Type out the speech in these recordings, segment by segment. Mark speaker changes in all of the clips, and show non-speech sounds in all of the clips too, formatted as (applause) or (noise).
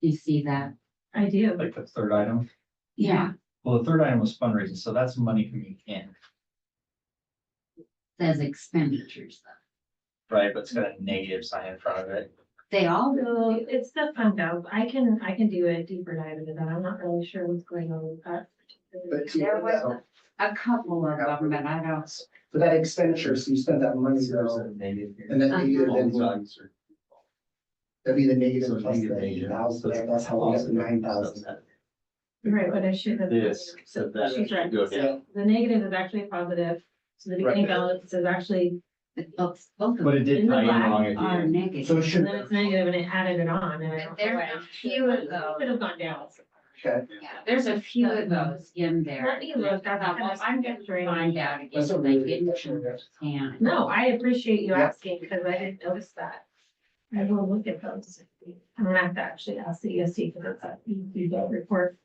Speaker 1: You see that?
Speaker 2: I do.
Speaker 3: like the third item.
Speaker 1: Yeah.
Speaker 3: Well, the third item was fundraising, so that's money coming in,
Speaker 1: Says expenditures though.
Speaker 3: right? But it's got a negative sign in front of it.
Speaker 1: They all
Speaker 2: So
Speaker 1: do.
Speaker 2: it's the fund out. I can, I can do a deeper dive into that. I'm not really sure what's going on with that.
Speaker 4: But you-
Speaker 1: There was a couple of them, but I don't.
Speaker 4: For that expenditure, so you spent that money
Speaker 3: There's a
Speaker 4: though,
Speaker 3: negative here.
Speaker 4: and then
Speaker 1: Uh-huh.
Speaker 4: negative, then that'd be the
Speaker 3: So
Speaker 4: negative
Speaker 3: it's
Speaker 4: plus the
Speaker 3: negative,
Speaker 4: eight
Speaker 3: negative.
Speaker 4: thousand,
Speaker 3: So it's
Speaker 4: that's how we got the
Speaker 3: positive.
Speaker 4: nine thousand.
Speaker 2: Right, but I should have.
Speaker 5: This, so that
Speaker 2: She's right.
Speaker 5: should go down.
Speaker 2: So The negative is actually a positive. So the beginning
Speaker 4: Right.
Speaker 2: balance is actually,
Speaker 1: But both, both of
Speaker 3: But it
Speaker 1: them
Speaker 3: did
Speaker 2: In the
Speaker 3: tie in
Speaker 2: black
Speaker 3: wrong
Speaker 1: are
Speaker 3: again.
Speaker 1: negative.
Speaker 4: So it
Speaker 2: and
Speaker 4: should,
Speaker 2: then it's negative and it added it on and I don't. know
Speaker 1: There
Speaker 2: why.
Speaker 1: are a few of those.
Speaker 2: It Would have gone down.
Speaker 4: okay,
Speaker 1: Yeah, There's a few of those in there.
Speaker 2: Let me look.
Speaker 1: I thought, well, I'm gonna find out again,
Speaker 4: That's a
Speaker 1: if I
Speaker 4: really
Speaker 1: didn't
Speaker 4: good question, yes.
Speaker 1: understand.
Speaker 2: No, I appreciate you
Speaker 4: Yeah.
Speaker 2: asking because I didn't notice that. I will look at those. I'm gonna have to actually ask the ESC for that, you do that report.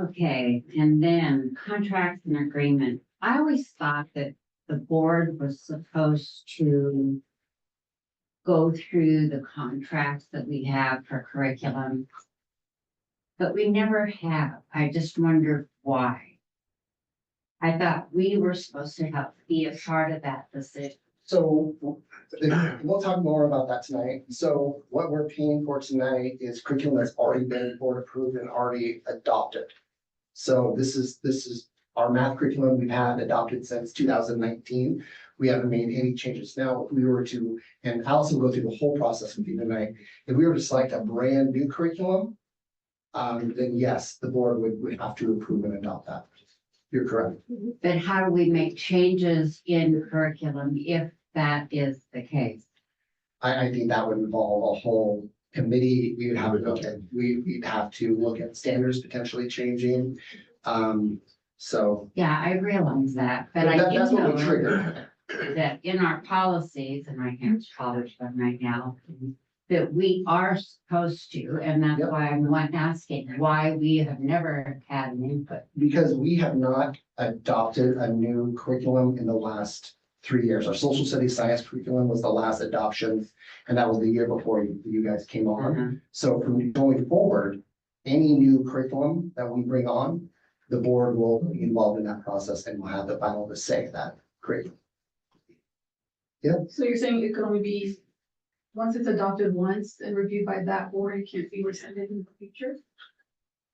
Speaker 1: Okay, and then contracts and agreement. I always thought that the board was supposed to go through the contracts that we have for curriculum. But we never have. I just wondered why. I thought we were supposed to help be a part of that decision.
Speaker 4: so (clears throat) we'll talk more about that tonight. So what we're paying for tonight is curriculum that's already been board approved and already adopted. So this is, this is our math curriculum we've had adopted since two thousand nineteen. We haven't made any changes now. If we were to, and Allison will go through the whole process with you tonight, if we were to select a brand new curriculum, um, then yes, the board would, would have to approve and adopt that. You're correct.
Speaker 1: But how do we make changes in curriculum if that is the case?
Speaker 4: I, I think that would involve a whole committee. We would have to look at, we, we'd have to look at standards potentially changing. Um, so.
Speaker 1: Yeah, I realize that, but I
Speaker 4: that-
Speaker 1: did
Speaker 4: That's what would
Speaker 1: know
Speaker 4: trigger.
Speaker 1: that in our policies, and I can't follow them right now, that we are supposed to, and that's
Speaker 4: Yep.
Speaker 1: why I'm one asking why we have never had an input.
Speaker 4: Because we have not adopted a new curriculum in the last three years. Our social studies science curriculum was the last adoption. And that was the year before you, you guys came on.
Speaker 1: Uh-huh.
Speaker 4: So from going forward, any new curriculum that we bring on, the board will be involved in that process and will have the final to say of that curriculum.
Speaker 6: So you're saying it can only be, once it's adopted once and reviewed by that board, it can't be rescinded in the future?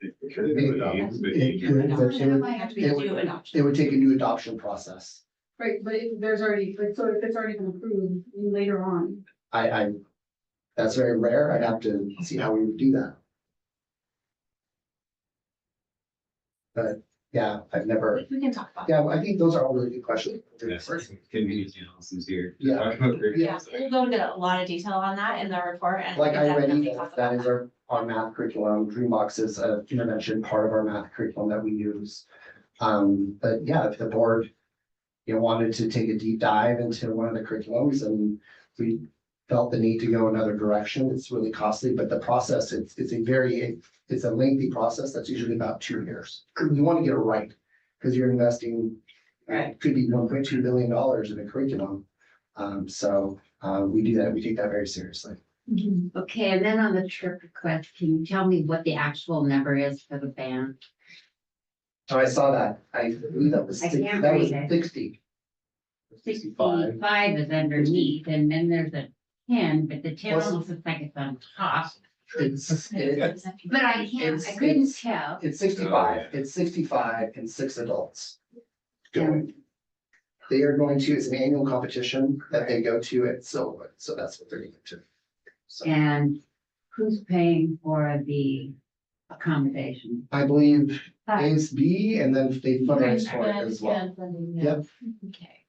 Speaker 4: It could, but it would-
Speaker 1: Might have to be
Speaker 4: it
Speaker 1: due
Speaker 4: would-
Speaker 1: an option.
Speaker 4: it would take a new adoption process.
Speaker 6: Right, but if there's already, like, so if it's already been approved later on,
Speaker 4: I, I, that's very rare. I'd have to see how we would do that. But, yeah, I've never,
Speaker 2: We can talk about.
Speaker 4: yeah, I think those are all really good questions. Yeah.
Speaker 7: Yeah, we'll go into a lot of detail on that in the report and.
Speaker 4: Like I read,
Speaker 7: definitely
Speaker 4: you,
Speaker 7: talk
Speaker 4: that
Speaker 7: about
Speaker 4: is our, our math curriculum. Dreambox is a intervention, part of our math curriculum that we use. Um, but yeah, if the board, you know, wanted to take a deep dive into one of the curriculums and we felt the need to go another direction, it's really costly, but the process, it's, it's a very, it's a lengthy process that's usually about two years. You want to get it right, because you're investing, it could be one point two billion dollars in a curriculum. Um, so, uh, we do that, we take that very seriously.
Speaker 1: Okay, and then on the trip request, can you tell me what the actual number is for the band?
Speaker 4: Oh, I saw that. I believe that was
Speaker 1: I
Speaker 4: sixty,
Speaker 1: can't
Speaker 4: that was
Speaker 1: read it.
Speaker 4: sixty.
Speaker 1: Sixty-five is underneath, and then there's a ten, but the ten
Speaker 4: Plus-
Speaker 1: almost looks like it's on top.
Speaker 4: It's, it-
Speaker 7: that.
Speaker 1: But I can't, I
Speaker 4: It's-
Speaker 1: couldn't
Speaker 4: it's-
Speaker 1: tell.
Speaker 4: it's
Speaker 5: Oh,
Speaker 4: sixty-five,
Speaker 5: yeah.
Speaker 4: it's sixty-five and six adults.
Speaker 1: Going.
Speaker 4: They are going to, it's an annual competition that they go to at Silverwood, so that's what they're going to. So
Speaker 1: And who's paying for the accommodation?
Speaker 4: I believe
Speaker 7: Uh,
Speaker 4: A's B and then they fundraise for it
Speaker 7: Good,
Speaker 4: as well.
Speaker 7: good funding, yeah.
Speaker 4: Yep,
Speaker 1: Okay.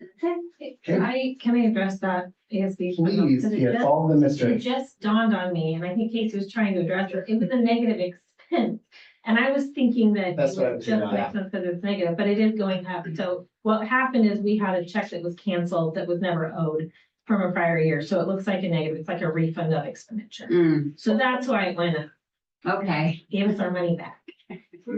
Speaker 1: That's it.
Speaker 4: Okay.
Speaker 2: I, can I address that ASB? for a moment?
Speaker 4: please,
Speaker 2: Because it
Speaker 4: yeah,
Speaker 2: just-
Speaker 4: follow the
Speaker 2: It
Speaker 4: mystery.
Speaker 2: just dawned on me, and I think Casey was trying to address it, it was a negative expense. And I was thinking that it
Speaker 4: That's
Speaker 2: was
Speaker 4: what I was
Speaker 2: just
Speaker 4: thinking, yeah.
Speaker 2: like because it's negative, but it is going up. So what happened is we had a check that was canceled that was never owed from a prior year, so it looks like a negative, it's like a refund of expenditure.
Speaker 1: Mm,
Speaker 2: So that's why it went up,
Speaker 1: okay.
Speaker 2: gave us our money back.